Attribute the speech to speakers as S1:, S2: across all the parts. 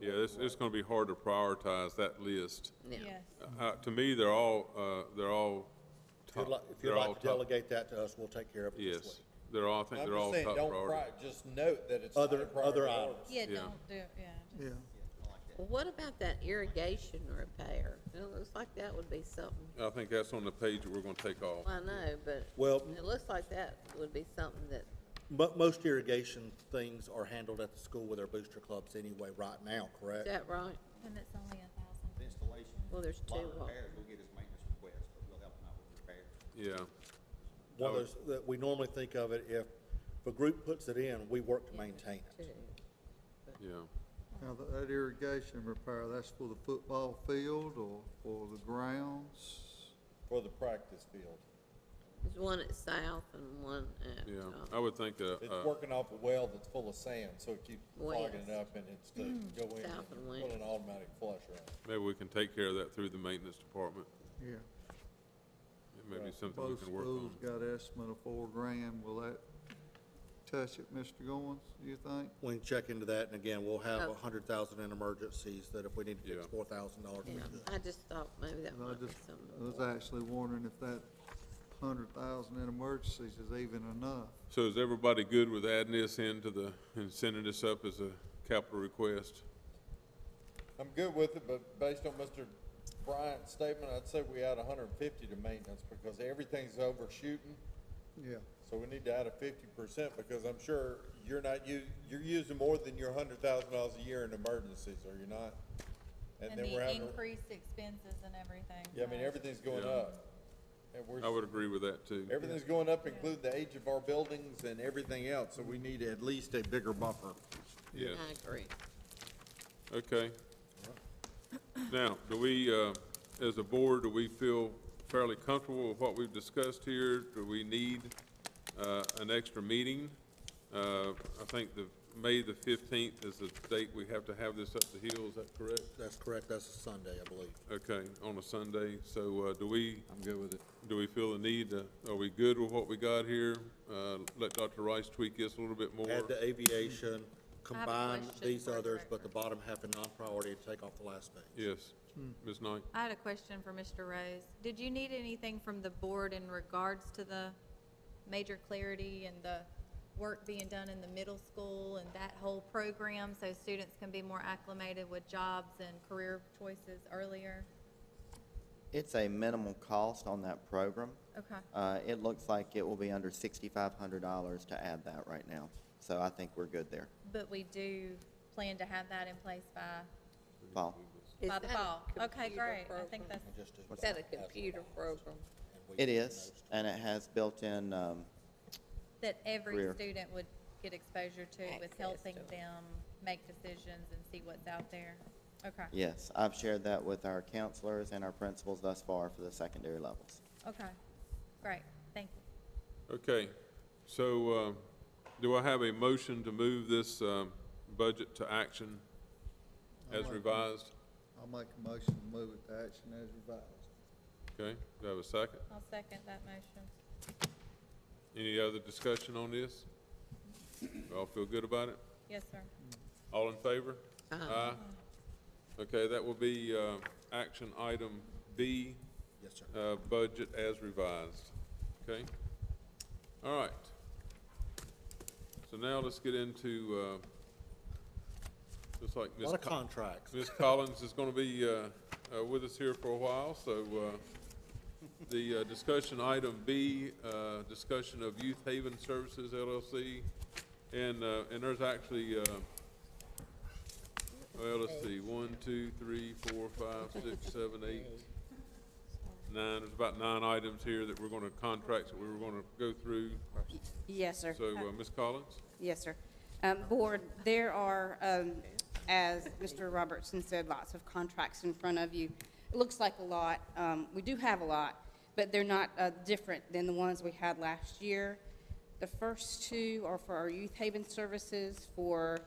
S1: Yeah, it's, it's gonna be hard to prioritize that list.
S2: Yeah.
S3: Yes.
S4: Mm-hmm.
S1: Uh, to me, they're all, uh, they're all
S5: If you'd
S1: top,
S5: like, if you'd
S1: they're all
S5: like to
S1: top.
S5: delegate that to us, we'll take care of it this
S1: Yes,
S5: week.
S1: they're all, I think
S6: I'm
S1: they're all
S6: just saying,
S1: top
S6: don't pri-
S1: priority.
S6: just note that it's.
S5: Other-
S6: not a priority
S5: other
S6: order.
S5: items.
S3: Yeah,
S1: Yeah.
S3: don't do, yeah.
S4: Yeah,
S2: Well, What about that irrigation repair? It looks like that would be something,
S1: I think that's on the page that we're gonna take off.
S2: I know, but
S5: Well-
S2: it looks like that would be something that,
S5: Mo- most irrigation things are handled at the school with our booster clubs anyway right now,
S2: is
S5: correct?
S2: that right?
S3: And it's only a thousand.
S7: installation.
S2: Well, there's
S7: Lot
S2: two of
S7: of
S2: 'em.
S7: repairs, we'll get his maintenance request, but we'll help him out with repairs.
S1: Yeah,
S5: One of those, that we normally think of it if, if a group puts it in, we work to maintain
S2: Two.
S5: it.
S1: yeah.
S4: now that- that irrigation repair, that's for the football field or for the grounds?
S6: For the practice field.
S2: There's one at South and one at,
S1: Yeah,
S2: uh,
S1: I would think that,
S6: It's
S1: uh,
S6: working off a well that's full of sand, so it keeps clogging it
S2: West.
S6: up and it's to go in
S2: Mm-hmm. South and
S6: and put
S2: west.
S6: an automatic flusher on.
S1: maybe we can take care of that through the maintenance department.
S4: Yeah.
S1: It may be something we
S4: Both
S1: can work
S4: schools
S1: on.
S4: got estimate of four grand. Will that touch it, Mr. Goins, do you think?
S5: We can check into that, and again, we'll have
S2: Oh.
S5: a hundred thousand in emergencies, that if we need to fix
S1: Yeah.
S5: four thousand dollars, we
S2: yeah,
S5: could.
S2: I just thought maybe that
S4: And I
S2: might be
S4: just, I was
S2: something.
S4: actually wondering if that hundred thousand in emergencies is even enough.
S1: So is everybody good with adding this into the, and sending this up as a capital request?
S6: I'm good with it, but based on Mr. Bryant's statement, I'd say we add hundred and fifty to maintenance because everything's overshooting.
S4: Yeah.
S6: So we need to add a fifty percent because I'm sure you're not u- you're using more than your hundred thousand dollars a year in emergencies, are you not?
S3: And
S6: then we're
S3: the
S6: having to-
S3: increased expenses and everything.
S6: Yeah, I mean,
S3: so-
S6: everything's going
S1: Yeah.
S6: up. And we're,
S1: I would agree with that too.
S6: everything's going up, including the age of our buildings and everything else, so we need at least a bigger buffer.
S1: Yes,
S2: I agree.
S1: okay. Now, do we, uh, as a board, do we feel fairly comfortable with what we've discussed here? Do we need, uh, an extra meeting? Uh, I think the, May the fifteenth is the date we have to have this up the hill, is that correct?
S5: That's correct, that's a Sunday, I believe.
S1: Okay, on a Sunday, so, uh, do we,
S6: I'm good with it.
S1: do we feel the need, to- are we good with what we got here? Uh, let Dr. Rice tweak this a little bit more.
S5: Add the aviation, combine
S3: question
S5: these
S3: for the
S5: others, but
S3: record.
S5: the bottom half a non-priority, and take off the last page.
S1: Yes, Ms. Knight?
S3: I had a question for Mr. Rose. Did you need anything from the board in regards to the major clarity and the work being done in the middle school and that whole program so students can be more acclimated with jobs and career choices earlier?
S8: It's a minimal cost on that program.
S3: Okay.
S8: Uh, It looks like it will be under $6,500 to add that right now. So I think we're good there.
S3: But we do plan to have that in place by,
S8: Paul?
S2: Is
S3: by the
S2: that a
S3: fall. Okay,
S2: computer
S3: great. I think
S2: program?
S3: that's,
S5: Just do
S2: Is that a computer program?
S8: It is, and it has built-in, um,
S3: that every
S8: Career.
S3: student would get exposure to with
S2: Access
S3: helping
S2: to it.
S3: them make decisions and see what's out there. Okay.
S8: yes, I've shared that with our counselors and our principals thus far for the secondary levels.
S3: Okay, great, thank you.
S1: Okay, so, uh, do I have a motion to move this, um, budget to action as revised?
S4: I'll make a motion to move it to action as revised.
S1: Okay, do I have a second?
S3: I'll second that motion.
S1: Any other discussion on this? You all feel good about it?
S3: Yes, sir.
S1: All in favor? Aye. Okay, that will be, uh, action item B,
S5: Yes, sir.
S1: uh, budget as revised. Okay? All right. So now let's get into, uh, looks like
S5: A
S1: Ms.
S5: lot of
S1: Co-
S5: contracts.
S1: Ms. Collins is going to be uh, uh, with us here for a while, so uh, the uh, discussion item B, uh, discussion of Youth Haven Services LLC, and, uh, and there's actually, uh, well, let's see, one, two, three, four, five, six, seven, eight, nine, there's about nine items here that we're going to, contracts that we were going to go through.
S9: Yes, sir.
S1: So, uh, Ms. Collins?
S9: Yes, sir. Um, Board, there are, um, as Mr. Robertson said, lots of contracts in front of you. It looks like a lot. Um, We do have a lot, but they're not uh, different than the ones we had last year. The first two are for our youth haven services for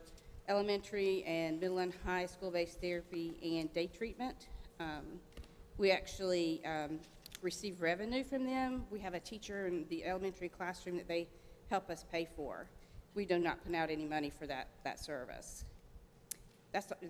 S9: elementary and middle and high school-based therapy and day treatment. Um, we actually um, receive revenue from them. We have a teacher in the elementary classroom that they help us pay for. We do not put out any money for that, that service. That's,